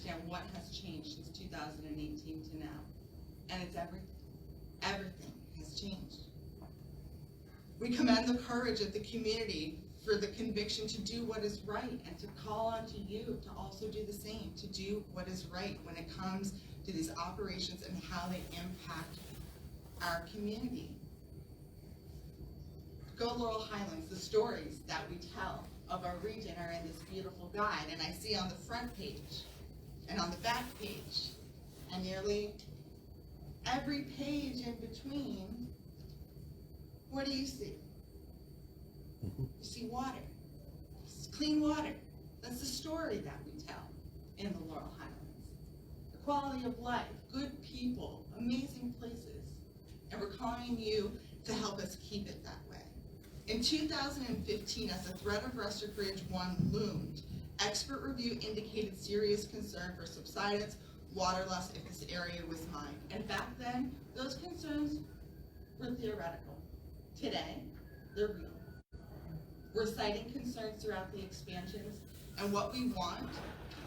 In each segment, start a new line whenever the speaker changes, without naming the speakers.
understand what has changed since two thousand and eighteen to now. And it's everything, everything has changed. We commend the courage of the community for the conviction to do what is right and to call on to you to also do the same, to do what is right when it comes to these operations and how they impact our community. Go Laurel Highlands, the stories that we tell of our region are in this beautiful guide, and I see on the front page and on the back page, and nearly every page in between, what do you see? You see water. It's clean water. That's the story that we tell in the Laurel Highlands. The quality of life, good people, amazing places. And we're calling you to help us keep it that way. In 2015, as the threat of Rustic Ridge 1 loomed, expert review indicated serious concern for subsidence, water loss if this area was mined. And back then, those concerns were theoretical. Today, they're real. We're citing concerns throughout the expansions, and what we want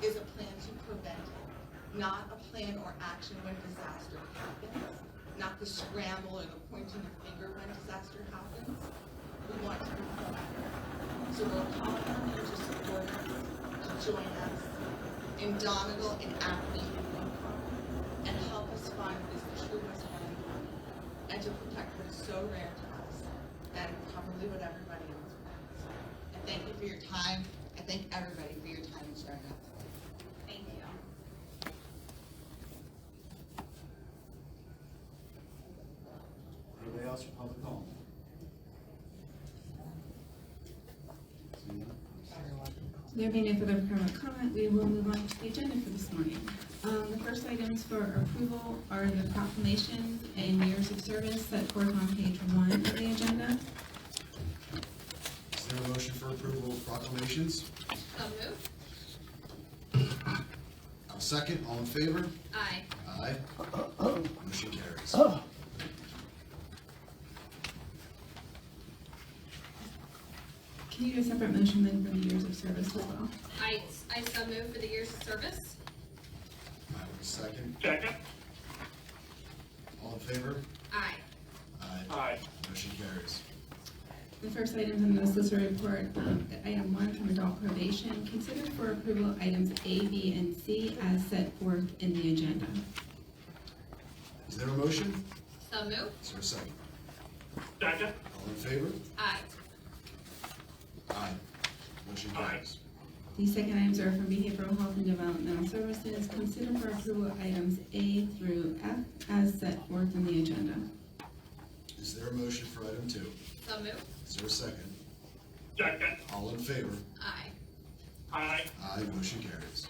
is a plan to prevent it, not a plan or action when disaster happens, not the scramble or the pointing of finger when disaster happens. We want to be proactive. So we're calling on you to support us, to join us in Donegal and Acme and help us find this true West Island and to protect what is so rare to us, and probably what everybody else wants. I thank you for your time, I thank everybody for your time and sharing that. Thank you.
Anybody else for public comment? Seeing none,
There being no further public comment, we will move on to the agenda for this morning. Um, The first items for approval are the proclamations and years of service that forth on page one of the agenda.
Is there a motion for approval of proclamations?
So moved.
I'll second, all in favor?
Aye.
Aye. Motion carries.
Can you do a separate motion then for the years of service as well?
I, I so moved for the years of service.
I will second,
Second,
all in favor?
Aye.
Aye.
aye.
Motion carries.
The first items in the solicitor report, um, item one from adult probation, consider for approval items A, B, and C as set forth in the agenda.
Is there a motion?
So moved.
Is there a second?
Second,
All in favor?
Aye.
Aye. Motion
Aye.
carries.
The second items are from Behavioral Health and Developmental Services. Consider for approval items A through F as set forth in the agenda.
Is there a motion for item two?
So moved.
Is there a second?
second,
All in favor?
Aye.
aye.
Aye. Motion carries.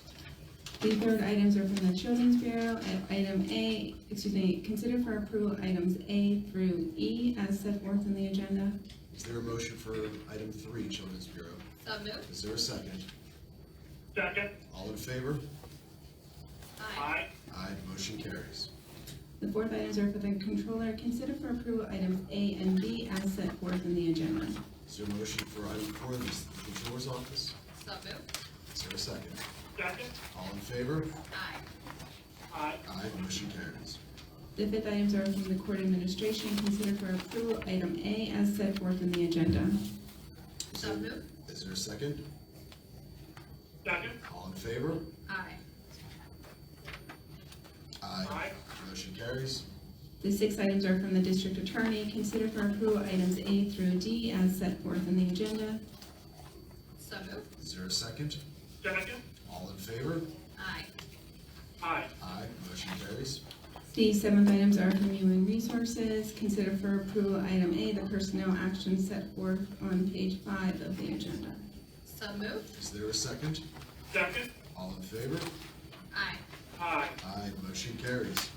The third items are from the Children's Bureau. At Item A, excuse me, consider for approval items A through E as set forth in the agenda.
Is there a motion for item three, Children's Bureau?
So moved.
Is there a second?
Second,
All in favor?
Aye.
aye.
Aye, motion carries.
The fourth items are for the Controller. Consider for approval items A and B as set forth in the agenda.
Is there a motion for item four, the Controller's Office?
So moved.
Is there a second?
Second,
All in favor?
Aye.
aye.
Aye, motion carries.
The fifth items are from the Court Administration. Consider for approval item A as set forth in the agenda.
Is
So
there-
moved.
Is there a second?
Second,
All in favor?
Aye.
Aye, motion carries.
The six items are from the district attorney. Consider for approval items A through D as set forth in the agenda.
So moved.
Is there a second?
second,
All in favor?
Aye.
aye.
Aye, motion carries.
The seventh items are from human resources. Consider for approval item A, the personnel action set forth on page five of the agenda.
So moved.
Is there a second?
Second,
All in favor?
Aye.
aye.
Aye, motion carries.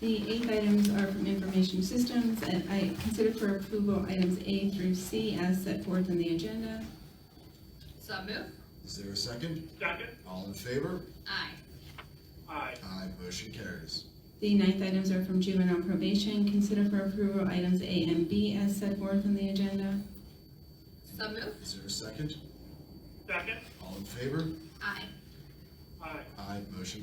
The eighth items are from information systems, and I consider for approval items A through C as set forth in the agenda.
So moved.
Is there a second?
Second,
All in favor?
Aye.
aye.
Aye, motion carries.
The ninth items are from juvenile probation. Consider for approval items A and B as set forth in the agenda.
So moved.
Is there a second?
Second,
All in favor?
Aye.
Aye.
Aye, motion